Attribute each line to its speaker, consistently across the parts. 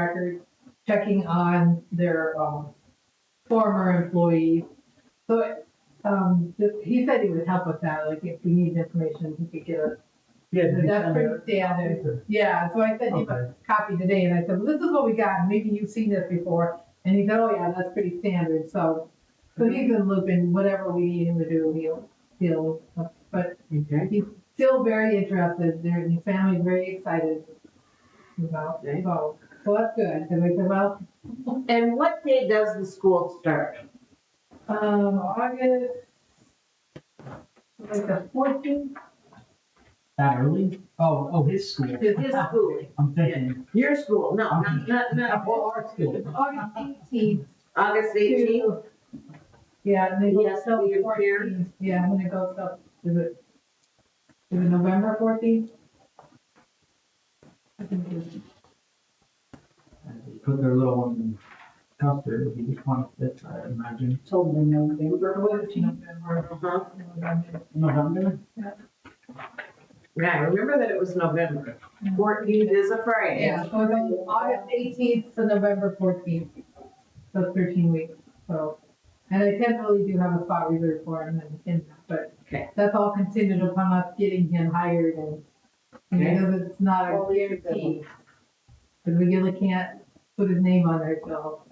Speaker 1: record, checking on their, um, former employees. So, um, the- he said he would help us out, like if we needed information, he could give us.
Speaker 2: Yeah.
Speaker 1: So
Speaker 2: we
Speaker 1: That's
Speaker 2: found
Speaker 1: pretty
Speaker 2: out.
Speaker 1: standard. Yeah, so I sent him a
Speaker 2: Okay.
Speaker 1: copy today and I said, well, this is what we got, maybe you've seen this before. And he said, oh yeah, that's pretty standard, so, so he's in loop and whatever we need him to do, he'll, he'll, but
Speaker 2: Okay.
Speaker 1: still very interested. Their and his family very excited about
Speaker 2: Okay.
Speaker 1: so so that's good. And they said, well,
Speaker 3: And what day does the school start?
Speaker 1: um, August like the fourteenth.
Speaker 2: That early? Oh, oh, his school.
Speaker 3: Is his schooling,
Speaker 2: I'm thinking,
Speaker 3: your school, no, not, not, not,
Speaker 2: well, our school.
Speaker 1: August eighteenth.
Speaker 3: August eighteenth?
Speaker 1: Yeah, and they go
Speaker 3: Yes,
Speaker 1: till
Speaker 3: we appear.
Speaker 1: 14th. Yeah, when it goes up, is it is it November fourteenth? I think it is.
Speaker 2: Put their little one in Custer, it'd be the twenty-fifth, I imagine.
Speaker 4: Totally November.
Speaker 1: November.
Speaker 3: Uh-huh,
Speaker 1: November.
Speaker 2: November?
Speaker 3: yeah, I remember that it was November. Fourteenth is a Friday.
Speaker 1: Yeah, so it's on August eighteenth to November fourteenth, so thirteen weeks, so. And I definitely do have a spot reserved for him and, and, but
Speaker 3: Okay.
Speaker 1: that's all contingent upon us getting him hired and, you
Speaker 3: Okay.
Speaker 1: know, it's not
Speaker 4: Well,
Speaker 1: a
Speaker 4: we should go.
Speaker 1: guarantee. Because we really can't put his name on there till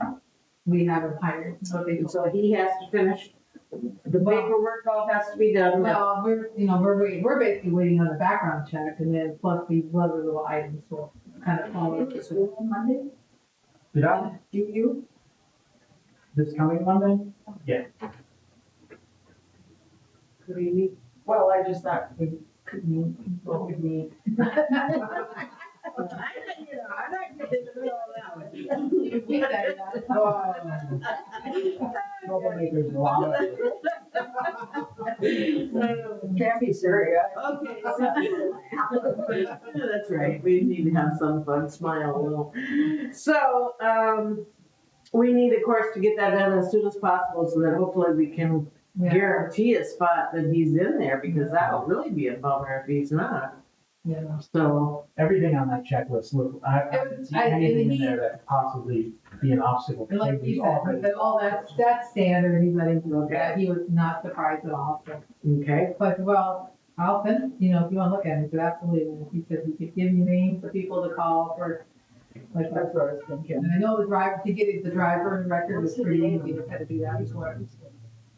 Speaker 1: we have him hired, so they,
Speaker 3: And So he has to finish, the
Speaker 1: Well-
Speaker 3: paperwork all has to be done,
Speaker 1: well,
Speaker 3: now.
Speaker 1: we're, you know, we're waiting, we're basically waiting on the background check and then plus these other little items will kind of fall into. place.
Speaker 4: Monday,
Speaker 2: Did I,
Speaker 4: do you?
Speaker 2: this coming Monday?
Speaker 4: Could we meet? Well, I just thought we could meet, what we meet.
Speaker 3: I'm not, you know, I'm not getting into all that.
Speaker 1: We said that.
Speaker 2: Oh, Normally there's a lot of it.
Speaker 4: Can't be serious.
Speaker 3: Okay, so- That's right, we need to have some fun, smile a little. So, um, we need, of course, to get that done as soon as possible so that hopefully we can
Speaker 1: Yeah,
Speaker 3: guarantee a spot that he's in there because that'll really be a bummer if he's not.
Speaker 1: yeah.
Speaker 3: So,
Speaker 2: Everything on that checklist, look, I I haven't seen
Speaker 1: I-
Speaker 2: anything in
Speaker 1: he-
Speaker 2: there that could possibly be an obstacle.
Speaker 1: And like you
Speaker 2: They've
Speaker 1: said,
Speaker 2: already-
Speaker 1: that all that's, that's standard, he's letting you look at, it. he was not surprised at all, so.
Speaker 3: okay,
Speaker 1: But, well, I'll send, you know, if you wanna look at it, but absolutely, and he said he could give you names for people to call for, like,
Speaker 4: That's what I was thinking.
Speaker 1: and I know the driver, to get it, the driver and record was pretty easy, we had to do that before.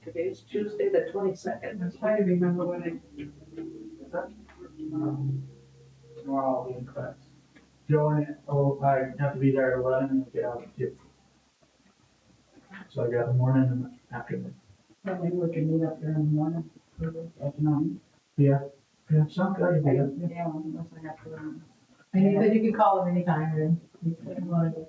Speaker 4: Today's Tuesday, the twenty-second.
Speaker 1: I'm trying to remember when I,
Speaker 2: We're all in class. Join, oh, I have to be there at eleven and get out at two. So I got the morning and afternoon.
Speaker 4: Well, maybe we can meet up there in the morning, at nine.
Speaker 2: Yeah, some good idea.
Speaker 4: Yeah, unless I have to. run.
Speaker 1: and he said you could call him anytime, and he said, well,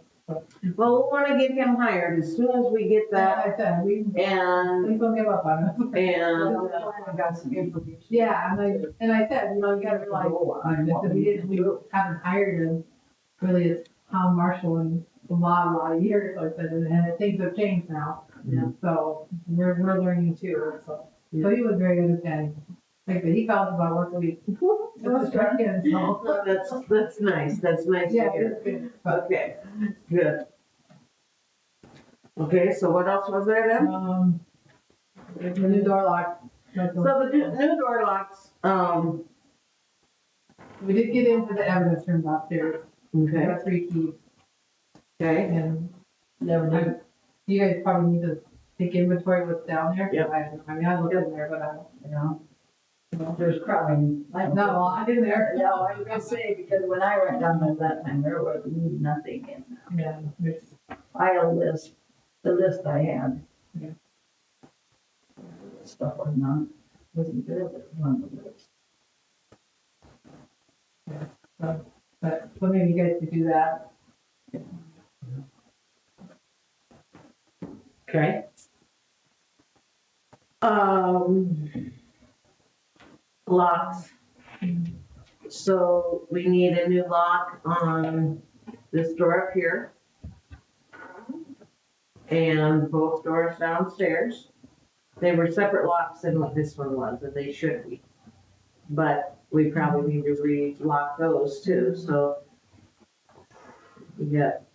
Speaker 3: well, we wanna get him hired as soon as we get that
Speaker 1: I said, we,
Speaker 3: and,
Speaker 1: please don't give up on him.
Speaker 3: and,
Speaker 4: Well, I got some information.
Speaker 1: Yeah, and I, and I said, you know, you gotta realize, that we didn't, we haven't hired him, really, it's Tom Marshall in a lot, a lot of years, so I said, and, and things have changed now.
Speaker 2: Yeah.
Speaker 1: So, we're, we're learning too, so, so he was very understanding, like, but he called about once a week. Just to check in, so,
Speaker 3: that's, that's nice, that's nice to
Speaker 1: yeah,
Speaker 3: hear.
Speaker 1: it's good, but,
Speaker 3: Okay, good. Okay, so what else was there then?
Speaker 1: um, the new door lock. that's
Speaker 3: So
Speaker 1: the-
Speaker 3: the new new door locks, um,
Speaker 1: We did get into the evidence room upstairs, we
Speaker 3: okay,
Speaker 1: got three keys,
Speaker 3: okay,
Speaker 1: and I- You guys probably need to take inventory of what's down there. 'cause
Speaker 3: Yep.
Speaker 1: I, I mean, I looked in there, but I, don't-
Speaker 4: You know? There's probably.
Speaker 1: there's not a lot in there.
Speaker 4: No, I was gonna say, because when I went down there that time, there was nothing in there.
Speaker 1: Yeah, there's-
Speaker 4: file list, the list I had.
Speaker 1: Yeah.
Speaker 4: Stuff was not, wasn't there, but was on the list.
Speaker 1: but, so maybe you guys could do that.
Speaker 3: okay. Um, locks. So we need a new lock on this door up here. And both doors downstairs. They were separate locks than what this one was, and they should be. But we probably need to re-lock those too, so. We got